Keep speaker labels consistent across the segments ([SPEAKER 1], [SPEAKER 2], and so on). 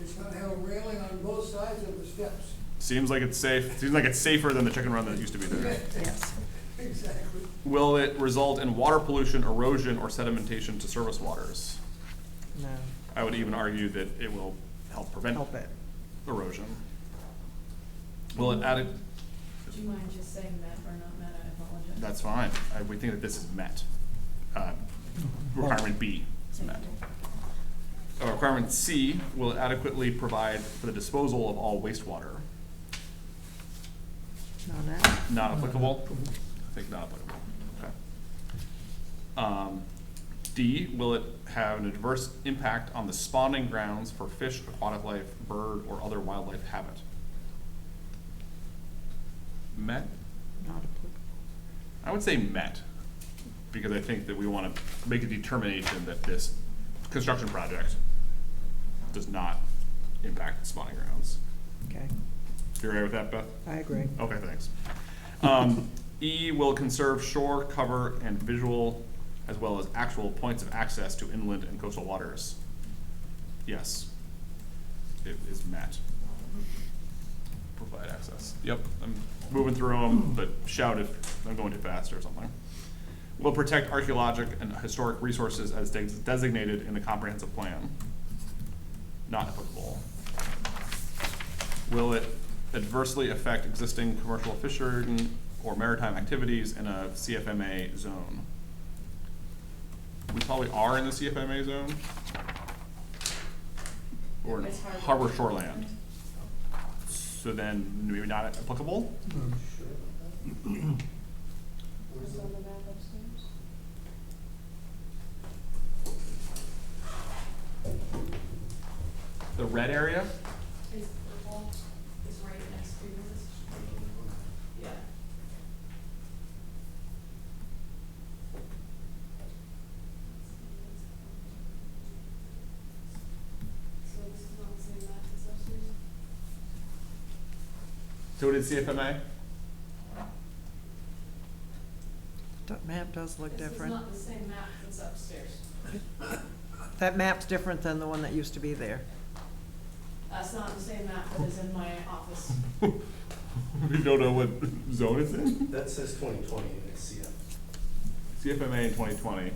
[SPEAKER 1] it's gonna have a railing on both sides of the steps.
[SPEAKER 2] Seems like it's safe, seems like it's safer than the chicken run that used to be there.
[SPEAKER 3] Yes.
[SPEAKER 1] Exactly.
[SPEAKER 2] Will it result in water pollution, erosion, or sedimentation to surface waters?
[SPEAKER 3] No,
[SPEAKER 2] I would even argue that it will help prevent
[SPEAKER 3] help it.
[SPEAKER 2] erosion. Will it add,
[SPEAKER 4] Do you mind just saying that or not met? I apologize.
[SPEAKER 2] that's fine, I, we think that this is met. Uh, Requirement B is
[SPEAKER 4] Thank
[SPEAKER 2] met.
[SPEAKER 4] you.
[SPEAKER 2] Uh, Requirement C, will it adequately provide for the disposal of all wastewater?
[SPEAKER 3] Not that.
[SPEAKER 2] Not applicable? I think not applicable, okay. Um, D, will it have an adverse impact on the spawning grounds for fish, aquatic life, bird, or other wildlife habit? Met?
[SPEAKER 3] Not applicable.
[SPEAKER 2] I would say met, because I think that we wanna make a determination that this construction project does not impact spawning grounds.
[SPEAKER 3] Okay,
[SPEAKER 2] You all right with that, Beth?
[SPEAKER 3] I agree.
[SPEAKER 2] Okay, thanks. Um, E will conserve shore cover and visual, as well as actual points of access to inland and coastal waters. Yes. It is met. Provide access. Yep, I'm moving through them, but shout if I'm going too fast or something. Will protect archaeologic and historic resources as des- designated in the comprehensive plan. Not applicable. Will it adversely affect existing commercial fishing or maritime activities in a CFMA zone? We probably are in the CFMA zone. Or in
[SPEAKER 4] It's
[SPEAKER 2] harbor
[SPEAKER 4] harbor.
[SPEAKER 2] shoreland. So then maybe not applicable?
[SPEAKER 4] Was on the map upstairs?
[SPEAKER 2] The red area?
[SPEAKER 4] Is the wall is right next to this? Yeah. So this is not the same map as upstairs?
[SPEAKER 2] So it is CFMA?
[SPEAKER 3] That map does look
[SPEAKER 4] This is
[SPEAKER 3] different.
[SPEAKER 4] not the same map that's upstairs.
[SPEAKER 3] That map's different than the one that used to be there.
[SPEAKER 4] That's not the same map that is in my office.
[SPEAKER 2] We don't know what zone it's in?
[SPEAKER 5] That says twenty twenty and it's CF.
[SPEAKER 2] CFMA in twenty twenty.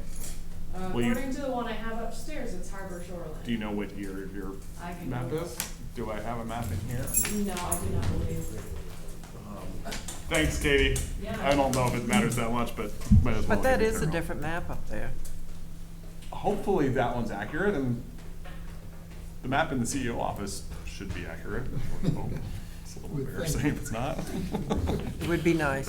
[SPEAKER 4] Uh,
[SPEAKER 2] Well, you-
[SPEAKER 4] According to the one I have upstairs, it's harbor shoreline.
[SPEAKER 2] Do you know what year your
[SPEAKER 4] I can
[SPEAKER 2] map
[SPEAKER 4] go-
[SPEAKER 2] is? Do I have a map in here?
[SPEAKER 4] No, I do not believe.
[SPEAKER 2] Thanks, Katie.
[SPEAKER 4] Yeah.
[SPEAKER 2] I don't know if it matters that much, but might as well.
[SPEAKER 3] But that
[SPEAKER 2] give it
[SPEAKER 3] is
[SPEAKER 2] to
[SPEAKER 3] a
[SPEAKER 2] her.
[SPEAKER 3] different map up there.
[SPEAKER 2] Hopefully that one's accurate and the map in the CEO office should be accurate. It's a little
[SPEAKER 1] Would think.
[SPEAKER 2] embarrassing if it's not.
[SPEAKER 3] It would be nice.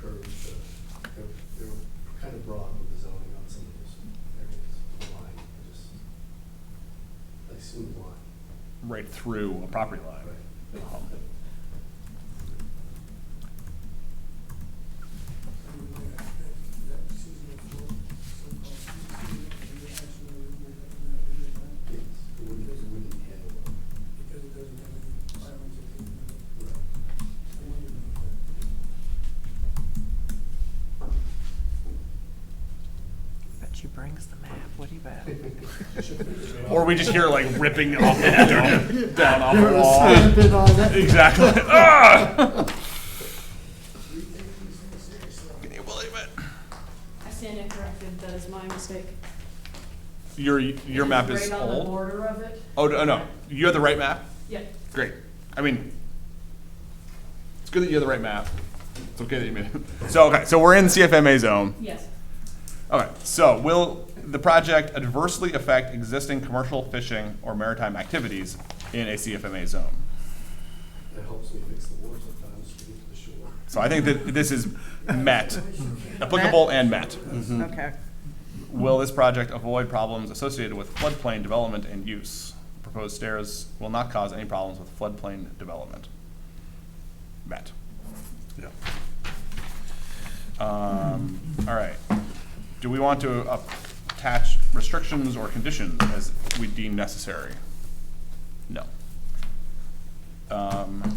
[SPEAKER 5] Curved, uh, they're, they're kind of broad with the zoning on some of those areas, the line, I just, I assume the line.
[SPEAKER 2] Right through a property line. Um,
[SPEAKER 5] Yes, it wouldn't, it wouldn't handle it. Right.
[SPEAKER 3] But she brings the map, what do you bet?
[SPEAKER 2] Or we just hear like ripping off the down, down off the
[SPEAKER 1] sand
[SPEAKER 2] wall.
[SPEAKER 1] and all that.
[SPEAKER 2] Exactly. Ah! Can you believe it?
[SPEAKER 4] I stand incorrected, that is my mistake.
[SPEAKER 2] Your, your
[SPEAKER 4] It
[SPEAKER 2] map is
[SPEAKER 4] Right on the
[SPEAKER 2] old?
[SPEAKER 4] border of it?
[SPEAKER 2] Oh, no, no. you have the right map?
[SPEAKER 4] Yeah,
[SPEAKER 2] Great. I mean, it's good that you have the right map. It's okay that you made it. So, okay, so we're in CFMA zone.
[SPEAKER 4] yes.
[SPEAKER 2] Okay, so will the project adversely affect existing commercial fishing or maritime activities in a CFMA zone?
[SPEAKER 5] That helps me fix the war sometimes, to get to the shore.
[SPEAKER 2] So I think that this is met, applicable and met.
[SPEAKER 3] Okay,
[SPEAKER 2] Will this project avoid problems associated with floodplain development and use? Proposed stairs will not cause any problems with floodplain development. Met. Yeah. Um, all right. Do we want to uh, attach restrictions or conditions as we deem necessary? No. Um,